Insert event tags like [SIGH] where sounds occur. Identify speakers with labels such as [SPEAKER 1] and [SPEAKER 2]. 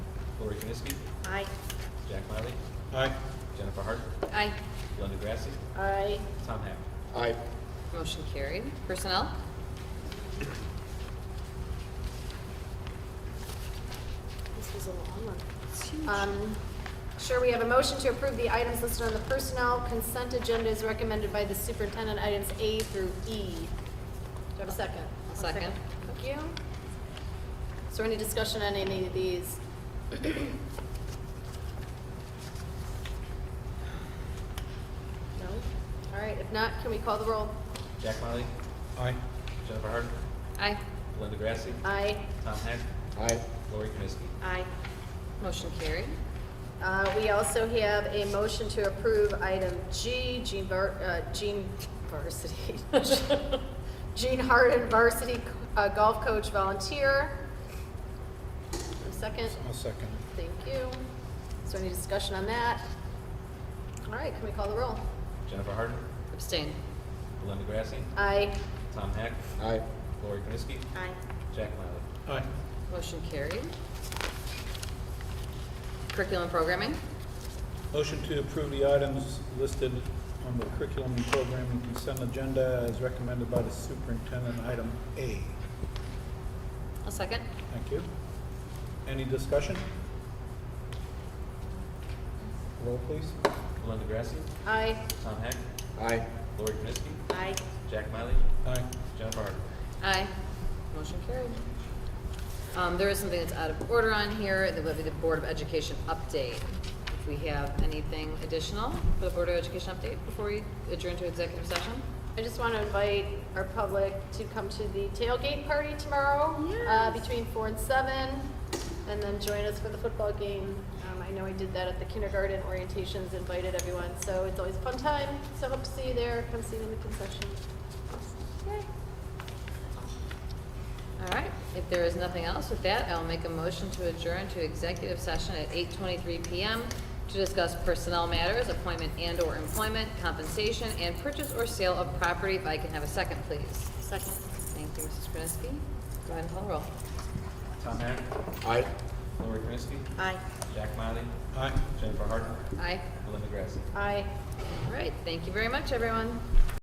[SPEAKER 1] Lori Kniske,
[SPEAKER 2] Aye.
[SPEAKER 1] Jack Miley,
[SPEAKER 3] Aye.
[SPEAKER 1] Jennifer Hart,
[SPEAKER 2] Aye.
[SPEAKER 1] Glenn DeGrassi,
[SPEAKER 2] Aye.
[SPEAKER 1] Tom Hack.
[SPEAKER 3] Aye.
[SPEAKER 4] Motion carried. Personnel?
[SPEAKER 2] This was a long one. Um, Sure, we have a motion to approve the items listed on the personnel consent agenda as recommended by the superintendent, items A through E. Do you have a second?
[SPEAKER 4] A second.
[SPEAKER 2] Thank you. Is there any discussion on any of these? No? All right, if not, can we call the roll?
[SPEAKER 1] Jack Miley,
[SPEAKER 3] Aye.
[SPEAKER 1] Jennifer Hart,
[SPEAKER 4] Aye.
[SPEAKER 1] Glenn DeGrassi,
[SPEAKER 2] Aye.
[SPEAKER 1] Tom Hack,
[SPEAKER 3] Aye.
[SPEAKER 1] Lori Kniske.
[SPEAKER 2] Aye.
[SPEAKER 4] Motion carried.
[SPEAKER 2] Uh, We also have a motion to approve item G, Gene Var- uh, Gene Varsity, [LAUGHS] Gene Harden Varsity uh, Golf Coach Volunteer. A Second,
[SPEAKER 3] I'll second.
[SPEAKER 2] thank you. Is there any discussion on that? All right, can we call the roll?
[SPEAKER 1] Jennifer Hart,
[SPEAKER 4] Abstain.
[SPEAKER 1] Glenn DeGrassi,
[SPEAKER 2] Aye.
[SPEAKER 1] Tom Hack,
[SPEAKER 3] Aye.
[SPEAKER 1] Lori Kniske,
[SPEAKER 2] Aye.
[SPEAKER 1] Jack Miley.
[SPEAKER 3] Aye.
[SPEAKER 4] Motion carried. Curriculum programming?
[SPEAKER 3] Motion to approve the items listed on the curriculum and programming consent agenda as recommended by the superintendent, item A.
[SPEAKER 4] A second.
[SPEAKER 3] Thank you. Any discussion? Roll, please.
[SPEAKER 1] Glenn DeGrassi,
[SPEAKER 2] Aye.
[SPEAKER 1] Tom Hack,
[SPEAKER 3] Aye.
[SPEAKER 1] Lori Kniske,
[SPEAKER 2] Aye.
[SPEAKER 1] Jack Miley,
[SPEAKER 3] Aye.
[SPEAKER 1] Jennifer Hart.
[SPEAKER 4] Aye. Motion carried. Um, there is something that's out of order on here, that would be the Board of Education update. If we have anything additional for the Board of Education update before we adjourn to executive session?
[SPEAKER 2] I just want to invite our public to come to the tailgate party tomorrow uh, between four and seven, and then join us for the football game. Um, I know I did that at the kindergarten orientations, invited everyone, so it's always a fun time. So hope to see you there. Come see me in the concession. Yay.
[SPEAKER 4] All right, if there is nothing else with that, I'll make a motion to adjourn to executive session at 8:23 PM to discuss personnel matters, appointment and/or employment, compensation, and purchase or sale of property. If I can have a second, please.
[SPEAKER 2] Second.
[SPEAKER 4] Thank you, Mrs. Krasinski. Go ahead and call the roll.
[SPEAKER 1] Tom Hack,
[SPEAKER 3] Aye.
[SPEAKER 1] Lori Kniske,
[SPEAKER 2] Aye.
[SPEAKER 1] Jack Miley,
[SPEAKER 3] Aye.
[SPEAKER 1] Jennifer Hart,
[SPEAKER 4] Aye.
[SPEAKER 1] Glenn DeGrassi.
[SPEAKER 2] Aye.
[SPEAKER 4] All right, thank you very much, everyone.